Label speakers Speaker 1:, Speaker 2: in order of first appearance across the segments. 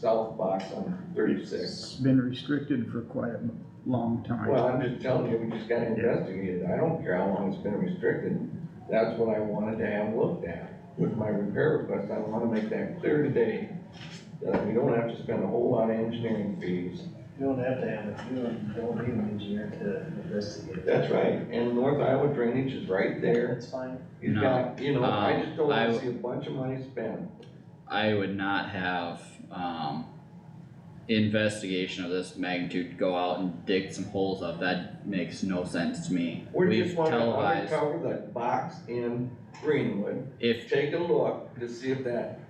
Speaker 1: south box on thirty-six.
Speaker 2: It's been restricted for quite a long
Speaker 1: Well,
Speaker 2: time.
Speaker 1: I'm just telling you, we just gotta investigate it, I don't care how long it's been restricted, that's what I wanted to have looked at. With my repair request, I wanna make that clear today, that we don't have to spend a whole lot of engineering fees.
Speaker 3: You don't have to have a feeling, don't need an engineer to investigate.
Speaker 1: That's right, and North Iowa drainage is right there,
Speaker 3: That's fine.
Speaker 1: you've
Speaker 4: No,
Speaker 1: got, you know, I just don't
Speaker 4: um,
Speaker 1: wanna
Speaker 4: I-
Speaker 1: see a bunch of money spent.
Speaker 4: I would not have, um, investigation of this magnitude go out and dig some holes up, that makes no sense to me.
Speaker 1: We're
Speaker 4: We've
Speaker 1: just wanting to
Speaker 4: televised,
Speaker 1: uncover that box in Greenwood,
Speaker 4: if,
Speaker 1: take a look to see if that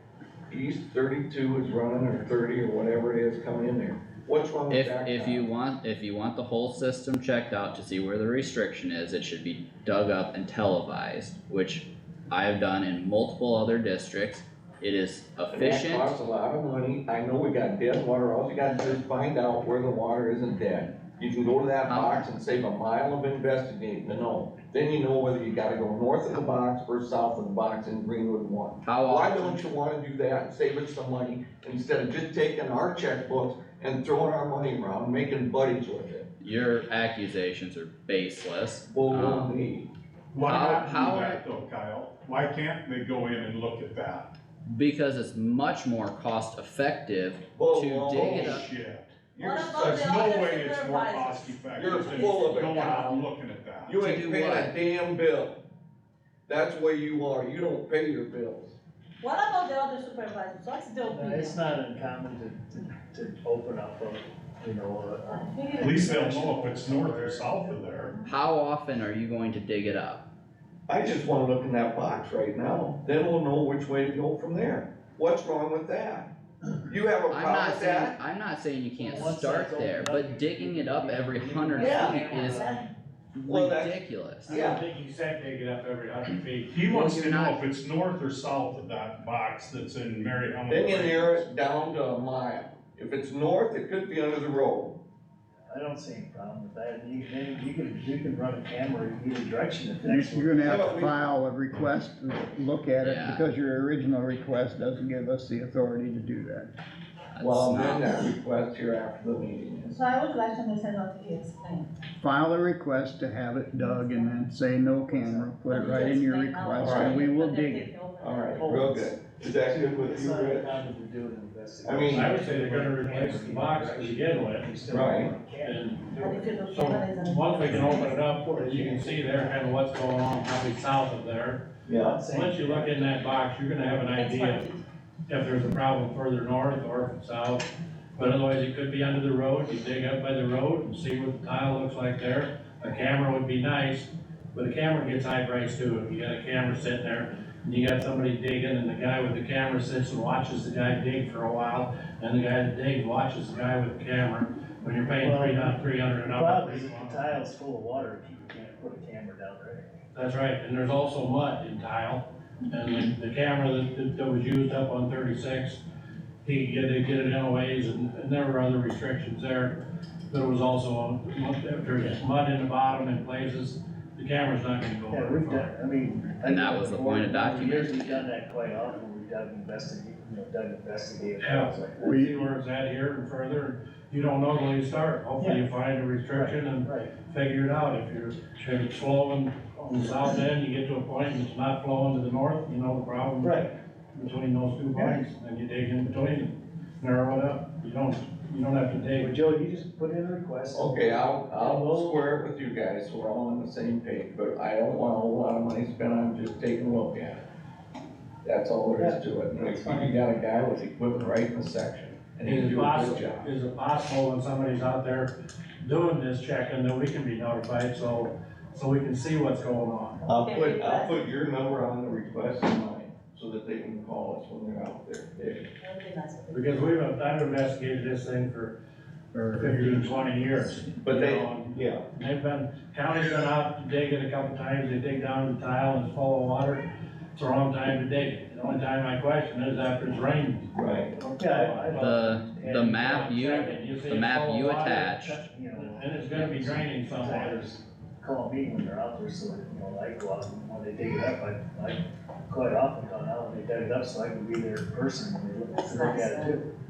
Speaker 1: east thirty-two is running or thirty or whatever it is coming in there. What's wrong with
Speaker 4: if,
Speaker 1: that?
Speaker 4: if
Speaker 1: guy?
Speaker 4: you want, if you want the whole system checked out to see where the restriction is, it should be dug up and televised, which I have done in multiple other districts. It is
Speaker 1: And that
Speaker 4: efficient,
Speaker 1: Costs a lot of money. I know we got dead water. All you gotta do is find out where the water isn't dead. You can go to that
Speaker 4: How-
Speaker 1: box and save a mile of investigating to know. Then you know whether you gotta go north of the box or south of the box in Greenwood one.
Speaker 4: how
Speaker 1: Why
Speaker 4: often?
Speaker 1: don't you wanna do that and save us some money instead of just taking our checkbooks and throwing our money around, making buddies with it?
Speaker 4: Your accusations are baseless.
Speaker 1: Well, we'll
Speaker 4: Um,
Speaker 1: need.
Speaker 5: Why
Speaker 4: How-
Speaker 5: not
Speaker 4: how-
Speaker 5: do that though, Kyle? Why can't they go in and look at that?
Speaker 4: Because it's much more cost effective
Speaker 1: Whoa,
Speaker 4: to
Speaker 1: whoa,
Speaker 4: dig it
Speaker 1: whoa.
Speaker 4: up.
Speaker 5: Bullshit. You're-
Speaker 6: What about
Speaker 5: There's
Speaker 6: the
Speaker 5: no
Speaker 6: other
Speaker 5: way it's more
Speaker 6: supervisors?
Speaker 5: cost effective
Speaker 1: You're
Speaker 5: than
Speaker 1: full of it,
Speaker 5: going out
Speaker 1: Kyle.
Speaker 5: and looking at that.
Speaker 1: You
Speaker 4: To
Speaker 1: ain't
Speaker 4: do
Speaker 1: paying a
Speaker 4: what?
Speaker 1: damn bill. That's where you are. You don't pay your bills.
Speaker 6: What about the other supervisors? What's their
Speaker 3: No, Uh, It's
Speaker 6: opinion?
Speaker 3: not uncommon to, to, to open up a, you know, a.
Speaker 6: I think
Speaker 5: At
Speaker 6: it's-
Speaker 5: least they'll know if it's north or south of there.
Speaker 4: How often are you going to dig it up?
Speaker 1: I just wanna look in that box right now, then we'll know which way to go from there. What's wrong with that? You have a
Speaker 4: I'm
Speaker 1: problem
Speaker 4: not
Speaker 1: with
Speaker 4: saying,
Speaker 1: that?
Speaker 4: I'm not saying you can't
Speaker 3: Well, once
Speaker 4: start
Speaker 3: that's opened
Speaker 4: there,
Speaker 3: up,
Speaker 4: but
Speaker 3: you-
Speaker 4: digging it up
Speaker 3: you-
Speaker 4: every
Speaker 3: you-
Speaker 4: hundred
Speaker 1: Yeah.
Speaker 4: feet is
Speaker 1: Well, that's-
Speaker 4: ridiculous.
Speaker 1: Yeah.
Speaker 7: think you said dig it up every hundred feet.
Speaker 5: He
Speaker 4: Well,
Speaker 5: wants
Speaker 4: you're
Speaker 5: to know if
Speaker 4: not-
Speaker 5: it's north or south of that box that's in Mary Ellen.
Speaker 1: Then you narrow it down to a mile. If it's north, it could be under the road.
Speaker 3: I don't see any problem with that, and you, then you can, you can run a camera in either direction if
Speaker 2: You're
Speaker 3: that's. what-
Speaker 2: you're gonna have
Speaker 1: Yeah,
Speaker 2: to
Speaker 1: we-
Speaker 2: file a request to look at it
Speaker 4: Yeah.
Speaker 2: because your original request doesn't give us the authority to do that.
Speaker 4: That's
Speaker 1: Well,
Speaker 4: not-
Speaker 1: then that request here after the meeting is.
Speaker 6: So I would like to understand what he explained.
Speaker 2: File a request to have it dug and then say no camera, put it right in your
Speaker 6: Explain how-
Speaker 5: "Oh,
Speaker 2: request and we will dig it.
Speaker 1: Alright, real good. Is that good with
Speaker 3: It's
Speaker 1: you,
Speaker 3: not
Speaker 1: Rick?
Speaker 4: uh,
Speaker 3: uncommon to do an investigation.
Speaker 1: I mean-
Speaker 7: I would say they're gonna replace the box to begin with,
Speaker 3: You still
Speaker 1: Right.
Speaker 3: want a camera.
Speaker 7: and
Speaker 6: But if you do
Speaker 7: So,
Speaker 6: journalism-
Speaker 7: once we can open it up, as you can see there, kind of what's going on, probably south of there.
Speaker 1: Yeah.
Speaker 7: Once you look in that box, you're gonna have an
Speaker 6: That's
Speaker 7: idea
Speaker 6: what he-
Speaker 7: if there's a problem further north or south. But otherwise, it could be under the road, you dig up by the road and see what the tile looks like there. A camera would be nice, but a camera gets high price too, if you got a camera sitting there, and you got somebody digging, and the guy with the camera sits and watches the guy dig for a while, and the guy that digs watches the guy with the camera, when you're paying three hundred, three hundred an
Speaker 3: The
Speaker 7: hour.
Speaker 3: problem is if the tile's full of water, you can't put a camera down there.
Speaker 7: That's right, and there's also mud in tile, and the, the camera that- that, that was used up on thirty-six, he get it, get it in a ways, and, and there were other restrictions there. There was also, if there's mud in the bottom in places, the camera's not gonna go
Speaker 3: Yeah, we've
Speaker 7: very
Speaker 3: done,
Speaker 7: far.
Speaker 3: I mean.
Speaker 4: And that was the point of
Speaker 3: Years
Speaker 4: documenting
Speaker 3: we've
Speaker 4: it.
Speaker 3: done that quite often, we've done investigate, you know, done investigative.
Speaker 7: Yeah.
Speaker 3: things like that.
Speaker 2: We-
Speaker 7: See where it's at here and further, you don't know till you start, hopefully you find a restriction and
Speaker 3: Right,
Speaker 7: figure it out, if you're, if it's flowing on the south end, you get to a point and it's not flowing to the north, you know the problem.
Speaker 3: right.
Speaker 7: between those two bikes, then you dig in between and narrow it up. You don't, you don't have to
Speaker 3: Well,
Speaker 7: dig.
Speaker 3: Joe, you just put in a request.
Speaker 1: Okay, I'll,
Speaker 3: And
Speaker 1: I'll
Speaker 3: we'll-
Speaker 1: square it with you guys, so we're all on the same page, but I don't want a whole lot of money spent on just taking a look at it. That's all there is to it, and if you got a guy with equipment right in the section, and he can
Speaker 7: Is
Speaker 1: do
Speaker 7: it
Speaker 1: a good
Speaker 7: possible,
Speaker 1: job.
Speaker 7: is it possible when somebody's out there doing this checking that we can be notified so, so we can see what's going on?
Speaker 1: I'll put, I'll put your number on the request in mine, so that they can call us when they're out there. If-
Speaker 6: That would be nice.
Speaker 7: Because we've, I've investigated this thing for fifteen, twenty years.
Speaker 1: But
Speaker 7: you
Speaker 1: they,
Speaker 7: know, and
Speaker 1: yeah,
Speaker 7: They've been, county's been out to dig it a couple times. They dig down in tile and it's full of water. It's the wrong time to dig it. The only time I question is after it's rained.
Speaker 1: right,
Speaker 3: Yeah,
Speaker 4: The, the map you,
Speaker 7: Second, see
Speaker 4: the
Speaker 7: it's
Speaker 4: map
Speaker 7: full of
Speaker 4: you
Speaker 7: water,
Speaker 4: attached,
Speaker 3: I, you know.
Speaker 7: And it's gonna be draining somewhere.
Speaker 3: Sometimes call me when they're out there, so, you know, I go out, and when they dig it up, I, I quite often gone out and they dug it up, so I can be their person when they look,
Speaker 6: That's
Speaker 3: look at
Speaker 6: nice,
Speaker 3: it too.